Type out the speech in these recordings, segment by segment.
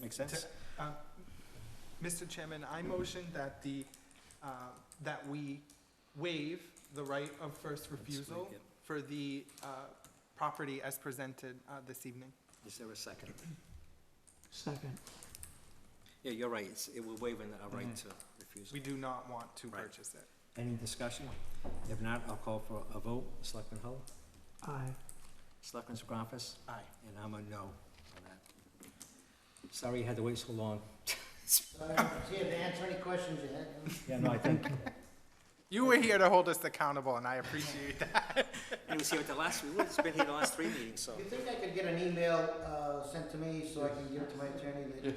Make sense? Uh, Mr. Chairman, I motion that the, uh, that we waive the right of first refusal make it. for the uh, property as presented uh, this evening. Is there a second? Second. Yeah, you're right, it's, it, we're waiving our right to refuse. We do not want to Right. purchase it. Any discussion? If not, I'll call for a vote. Selectman Hull? Aye. Selectman Segravas? Aye. And I'm a no on that. Sorry you had to wait so long. See if they answer any questions you had. Yeah, no, I think, You were here to hold us accountable, and I appreciate that. He was here at the last, it's been here the last three meetings, so. You think I could get an email uh, sent to me so I can give it to my attorney that you're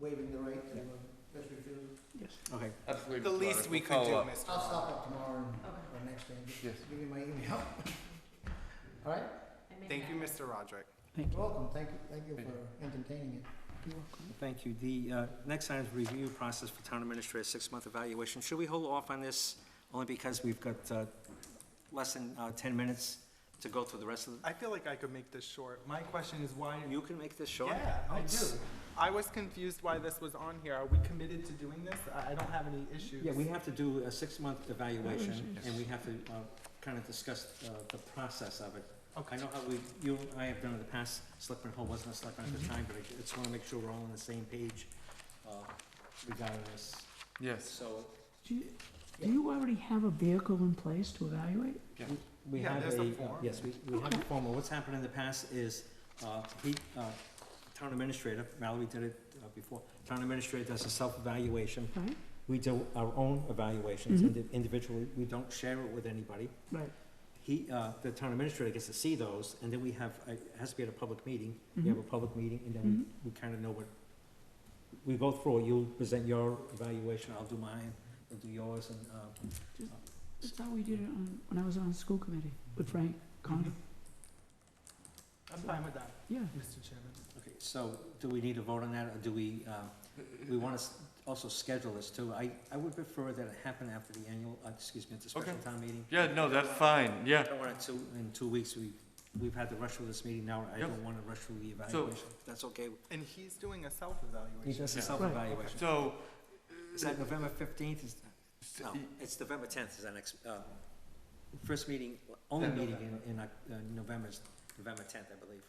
waiving the right to uh, just refuse? Yes. Okay, The least we could do, Mr. I'll stop up tomorrow and- or next day. Yes. Give me my email. All right? Thank you, Mr. Roderick. Thank you. You're welcome. Thank you, thank you for entertaining it. You're welcome. thank you. The, uh, next item is review process for town administrator, six-month evaluation. Should we hold off on this only because we've got, uh, less than, uh, ten minutes to go through the rest of I feel like I could make this short. My question is why, the, you can make this short? yeah, I do. It's- I was confused why this was on here. Are we committed to doing this? I I don't have any issues. Yeah, we have to do a six-month evaluation, and we have to kind of discuss uh, the process of it. I Okay, know how we, you and I have done in the past, Selectman Hull wasn't a selectman at the time, but I just want to make sure we're all on the same page uh, regarding this. Yes, So Do you- do you already have a vehicle in place to evaluate? we Yeah, have there's a a, uh, form. yes, we we have a form. Well, What's happened in the past is, uh, he, uh, town administrator, Mallory did it uh, before, town administrator does a self-evaluation. Mm-hmm. Right? We do our own evaluations Mhm. indi- individually, we don't share it with anybody. Right. He, uh, the town administrator gets to see those, and then we have, a- it has to be at a public meeting, Mm-hmm. we Mm-hmm. have a public meeting, and then we we kind of know what, we go through, it. you'll present your evaluation, I'll do mine, you'll do yours, and, uh, That's how we did it on, when I was on the school committee with Frank Condon. I'm fine with that, Yeah. Mr. Chairman. okay, so, do we need to vote on that, or do we, uh, we want to also schedule this too? I, I would prefer that it happen after the annual, uh, excuse me, at the special Okay. town meeting. yeah, no, that's fine, yeah. I don't want to, in two weeks, we, we've had to rush through this meeting now, I Yep. don't want to rush through the So- evaluation, if that's okay. And he's doing a He self-evaluation. does a Yeah. self-evaluation. So, Is that November fifteenth? Is, s- no, y- it's November tenth is our next, uh, first meeting, only Then meeting in, in, uh, November is November tenth, I believe.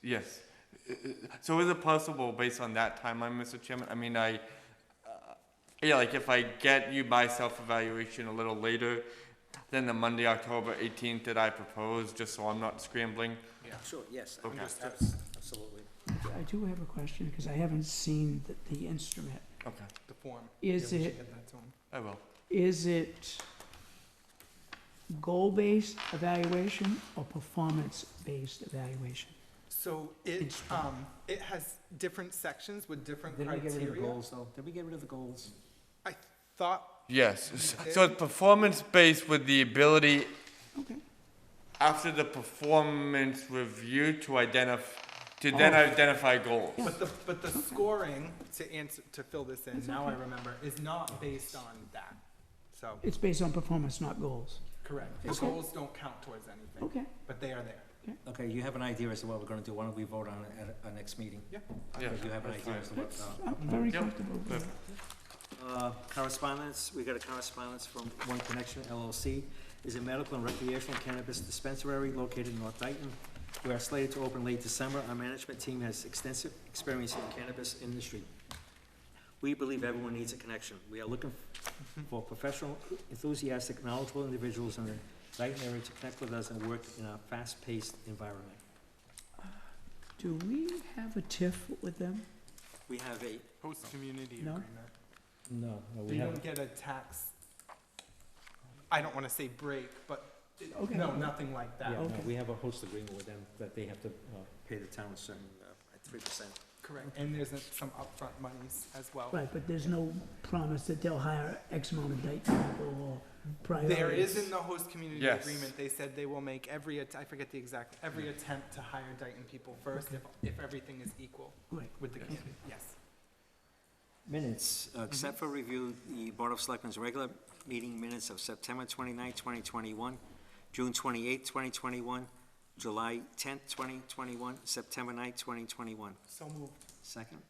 yes. Uh, So is it possible, based on that timeline, Mr. Chairman, I mean, I, uh, yeah, like if I get you my self-evaluation a little later than the Monday, October eighteenth that I propose, just so I'm not scrambling? Sure, yes, Okay. abs- absolutely. I do have a question, because I haven't seen the, the instrument. Okay, The form. Is Yeah, we should it, get that to him. I will. is it goal-based evaluation or performance-based evaluation? So it, um, it has different sections with different Did we get rid of the criteria. goals though? Did we get rid of the goals? I thought, Yes, s- so it's performance-based with the ability Okay. after the performance review to identify, to then identify goals. but the, but the scoring, to answer, to fill this in, now I remember, is not based on that. So, It's based on performance, not goals. correct. The Okay. goals don't count towards anything, Okay. but they are there. Okay, you have an idea as to what we're gonna do, why don't we vote on it at our next meeting? Yeah. Yeah, You have an idea that's fine. as to what, That's, uh, I'm very Yep. comfortable with Yep. that. Uh, Correspondence, we got a correspondence from One Connection LLC, is a medical and recreational cannabis dispensary located in North Dayton. We are slated to open late December. Our management team has extensive experience in the cannabis industry. We believe everyone needs a connection. We are looking for professional, enthusiastic, knowledgeable individuals in the Dayton area to connect with us and work in a fast-paced environment. Do we have a TIF with them? We have a, Host community No? agreement. no, no, we You haven't. don't get a tax, I don't wanna say break, but, it- Okay. no, nothing like Yeah, that. no, Okay. we have a host agreement with them that they have to uh, pay the town a certain, uh, three percent. Correct. And there's uh, some upfront monies as well. Right, but there's no promise that they'll hire X amount of Dayton people or priority. There is in the host community Yes. agreement, they said they will make every, att- I forget the exact, every attempt to hire Dayton people first if, if everything is equal Right. with the community, yes. Minutes, uh, accept for review the Board of Selectmen's regular meeting minutes of September 29, 2021, June 28, 2021, July 10, 2021, September 9, 2021. So moved. Second?